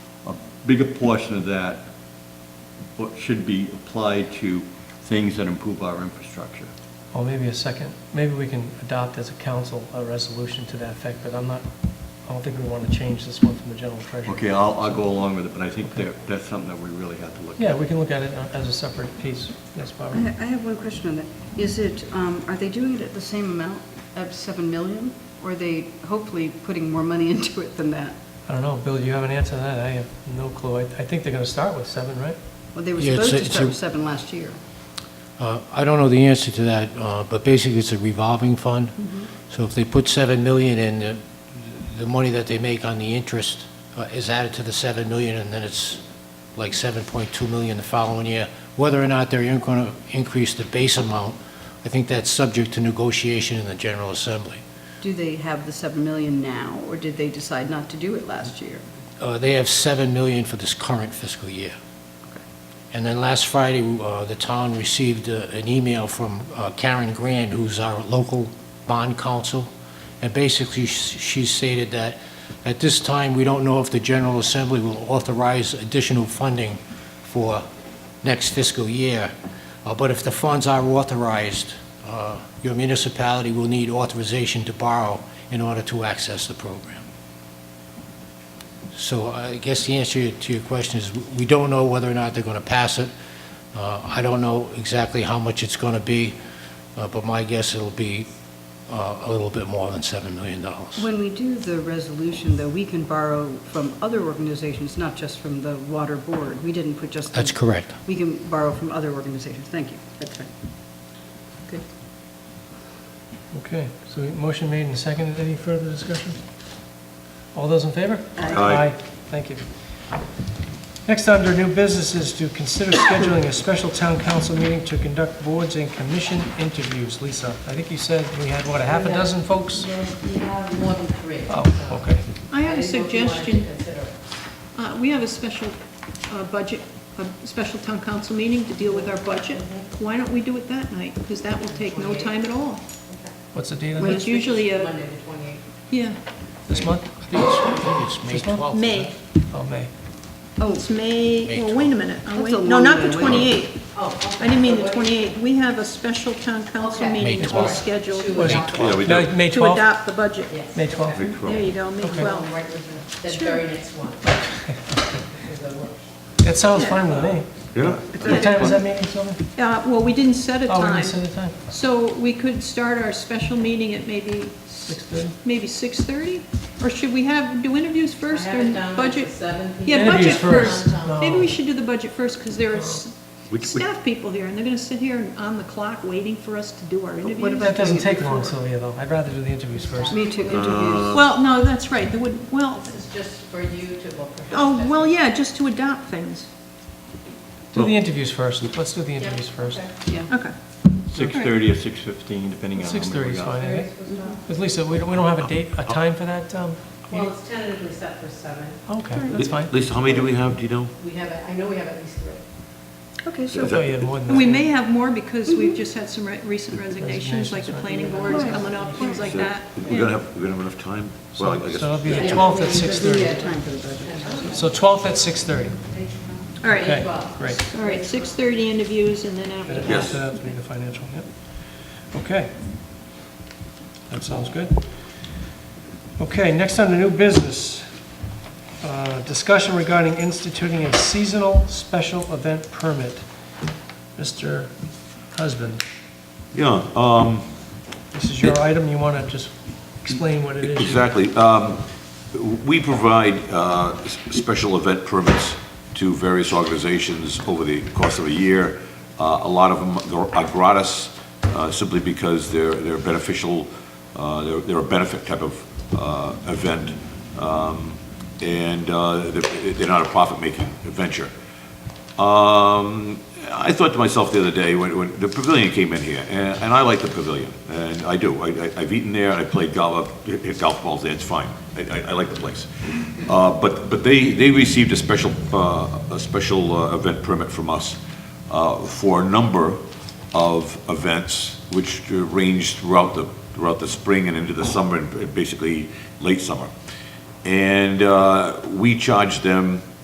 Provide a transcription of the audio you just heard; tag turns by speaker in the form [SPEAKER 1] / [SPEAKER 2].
[SPEAKER 1] a bigger portion of that what should be applied to things that improve our infrastructure.
[SPEAKER 2] Or maybe a second, maybe we can adopt as a council a resolution to that effect, but I'm not, I don't think we want to change this one from the general treasurer.
[SPEAKER 1] Okay, I'll, I'll go along with it, but I think that, that's something that we really have to look at.
[SPEAKER 2] Yeah, we can look at it uh, as a separate piece. Yes,
[SPEAKER 3] I
[SPEAKER 2] Barbara?
[SPEAKER 3] I have one question on that. Is it, um, are they doing it at the same amount of 7 million? Or are they hopefully putting more money into it than that?
[SPEAKER 2] I don't know, Bill, you have an answer to that? I have no clue. I, I think they're going to start with seven, right?
[SPEAKER 3] Well, they were
[SPEAKER 4] Yeah, it's
[SPEAKER 3] supposed
[SPEAKER 4] a-
[SPEAKER 3] to
[SPEAKER 4] it's
[SPEAKER 3] start
[SPEAKER 4] a-
[SPEAKER 3] with 7 last year.
[SPEAKER 4] Uh, I don't know the answer to that, uh, but basically it's a revolving fund. So if they put 7 million in, the- the money that they make on the interest uh, is added to the 7 million, and then it's like 7.2 million the following year. Whether or not they're going to increase the base amount, I think that's subject to negotiation in the General Assembly.
[SPEAKER 3] Do they have the 7 million now, or did they decide not to do it last year?
[SPEAKER 4] Uh, They have 7 million for this current fiscal year. And then last Friday, uh, the town received uh, an email from uh, Karen Grand, who's our local bond counsel, and basically sh- she stated that at this time, we don't know if the General Assembly will authorize additional funding for next fiscal year, Uh, but if the funds are authorized, uh, your municipality will need authorization to borrow in order to access the program. So I guess the answer to your question is, we don't know whether or not they're going to pass it. Uh, I don't know exactly how much it's going to be, uh, but my guess it'll be uh, a little bit more than $7 million.
[SPEAKER 3] When we do the resolution, though, we can borrow from other organizations, not just from the Water Board. We didn't put just. the-
[SPEAKER 4] That's correct.
[SPEAKER 3] We can borrow from other organizations. Thank you. That's right. Good.
[SPEAKER 2] Okay, so motion made and seconded. Any further discussion? All those in favor?
[SPEAKER 3] Aye.
[SPEAKER 1] Aye.
[SPEAKER 2] Thank you. Next under new business is to consider scheduling a special town council meeting to conduct boards and commission interviews. Lisa, I think you said we had, what, a half a
[SPEAKER 5] Yeah.
[SPEAKER 2] dozen folks?
[SPEAKER 5] We have more than three.
[SPEAKER 2] Oh, okay.
[SPEAKER 6] I have a
[SPEAKER 5] didn't know if you wanted to
[SPEAKER 6] suggestion.
[SPEAKER 5] consider it.
[SPEAKER 6] Uh, We have a special uh, budget, a special town council meeting to deal with our budget. Why don't we do it that night? Because that will take no time at all.
[SPEAKER 2] What's the date of
[SPEAKER 6] It's
[SPEAKER 2] that?
[SPEAKER 6] usually a,
[SPEAKER 5] Monday, the 28th.
[SPEAKER 6] yeah,
[SPEAKER 2] This month?
[SPEAKER 4] I think it's- I think it's May
[SPEAKER 2] This month?
[SPEAKER 4] 12th.
[SPEAKER 6] May.
[SPEAKER 2] Oh, May.
[SPEAKER 3] Oh,
[SPEAKER 6] It's May,
[SPEAKER 4] May
[SPEAKER 6] well, wait a minute. I'll
[SPEAKER 3] That's
[SPEAKER 6] wait-
[SPEAKER 3] a
[SPEAKER 6] No,
[SPEAKER 3] long
[SPEAKER 6] not
[SPEAKER 3] way
[SPEAKER 6] the
[SPEAKER 3] to wait.
[SPEAKER 6] 28th.
[SPEAKER 5] Oh, okay.
[SPEAKER 6] I didn't mean the
[SPEAKER 5] What-
[SPEAKER 6] 28th. We have a special town council
[SPEAKER 5] Okay.
[SPEAKER 6] meeting
[SPEAKER 4] May
[SPEAKER 6] that we'll
[SPEAKER 4] 12th.
[SPEAKER 6] schedule
[SPEAKER 5] To
[SPEAKER 6] to
[SPEAKER 2] Was it-
[SPEAKER 5] adopt
[SPEAKER 1] Yeah, we do.
[SPEAKER 2] No, May 12th?
[SPEAKER 6] adopt the budget.
[SPEAKER 5] Yes.
[SPEAKER 2] May 12th?
[SPEAKER 1] Big
[SPEAKER 6] There
[SPEAKER 1] trouble.
[SPEAKER 6] you go, May
[SPEAKER 2] Okay.
[SPEAKER 6] 12th.
[SPEAKER 5] Oh, Right with the, the
[SPEAKER 6] Sure.
[SPEAKER 5] very next one. Is the work.
[SPEAKER 2] That sounds fine with me.
[SPEAKER 1] Yeah.
[SPEAKER 2] What time is that meeting, Sylvia?
[SPEAKER 6] Uh, Well, we didn't set a
[SPEAKER 2] Oh, we
[SPEAKER 6] time.
[SPEAKER 2] didn't set a time.
[SPEAKER 6] So we could start our special meeting at maybe,
[SPEAKER 2] 6:30?
[SPEAKER 6] maybe 6:30? Or should we have, do interviews
[SPEAKER 5] I
[SPEAKER 6] first
[SPEAKER 5] have
[SPEAKER 6] or
[SPEAKER 5] it down
[SPEAKER 6] budget?
[SPEAKER 5] at 7 p.m.
[SPEAKER 6] Yeah,
[SPEAKER 2] Interviews
[SPEAKER 6] budget first.
[SPEAKER 2] first. No.
[SPEAKER 6] Maybe we should do the budget first, because there are s-
[SPEAKER 1] We- we-
[SPEAKER 6] staff people here, and they're going to sit here and on the clock waiting for us to do our
[SPEAKER 3] what
[SPEAKER 6] interviews.
[SPEAKER 3] about-
[SPEAKER 2] That doesn't take long, Sylvia, though. I'd rather do the interviews first.
[SPEAKER 3] me too, interviews.
[SPEAKER 6] Well, no, that's right, there would, well,
[SPEAKER 5] This is just for you to, well, perhaps.
[SPEAKER 6] oh,
[SPEAKER 5] that's-
[SPEAKER 6] well, yeah, just to adopt things.
[SPEAKER 2] Do the interviews first. Let's do the
[SPEAKER 5] Yeah,
[SPEAKER 2] interviews first.
[SPEAKER 5] okay.
[SPEAKER 3] Yeah.
[SPEAKER 6] Okay.
[SPEAKER 1] 6:30 or 6:15, depending on how many we
[SPEAKER 2] 6:30 is
[SPEAKER 1] got.
[SPEAKER 2] fine, I think.
[SPEAKER 5] Thursday's not-
[SPEAKER 2] Because Lisa, we don't, we don't have a date, a time for that, um,
[SPEAKER 5] Well,
[SPEAKER 2] meeting?
[SPEAKER 5] it's tentatively set for 7.
[SPEAKER 2] Okay, that's fine.
[SPEAKER 1] Lisa, how many do we have, do you know?
[SPEAKER 5] We have, a- I know we have at least three.
[SPEAKER 3] Okay,
[SPEAKER 2] I
[SPEAKER 3] so
[SPEAKER 2] thought you had more than that.
[SPEAKER 6] We may have more because we've just had some re- recent resignations, like the planning board is
[SPEAKER 3] Right.
[SPEAKER 6] coming up, things like that.
[SPEAKER 1] We're gonna have, we're gonna have enough time? Well,
[SPEAKER 2] So
[SPEAKER 1] I
[SPEAKER 2] so
[SPEAKER 1] guess.
[SPEAKER 2] it'll be the
[SPEAKER 5] Yeah.
[SPEAKER 2] 12th at
[SPEAKER 3] yeah,
[SPEAKER 2] 6:30.
[SPEAKER 3] time for the budget.
[SPEAKER 2] So 12th at 6:30.
[SPEAKER 6] All right,
[SPEAKER 2] Okay,
[SPEAKER 5] Well,
[SPEAKER 2] great.
[SPEAKER 6] All right, 6:30 interviews, and then after that.
[SPEAKER 1] Yes.
[SPEAKER 2] So That's uh, be the financial, yep. Okay. That sounds good. Okay, next on the new business, uh, discussion regarding instituting a seasonal special event permit. Mr. Husband,
[SPEAKER 7] Yeah, um,
[SPEAKER 2] this is your item, you want to just explain what it is?
[SPEAKER 7] exactly. Um, We provide uh, s- special event permits to various organizations over the course of a year. Uh, A lot of them are gratis uh, simply because they're they're beneficial, uh, they're they're a benefit type of uh, event, Um, and uh, they're they're not a profit-making venture. Um, I thought to myself the other day, when, when the pavilion came in here, and, and I like the pavilion, and I do. I, I- I've eaten there, and I played golf, hit golf balls there, it's fine. I, I, I like the place. Uh, but, but they, they received a special, uh, a special uh, event permit from us, uh, for a number of events, which uh, ranged throughout the, throughout the spring and into the summer, and basically late summer. And, uh, we uh, charged them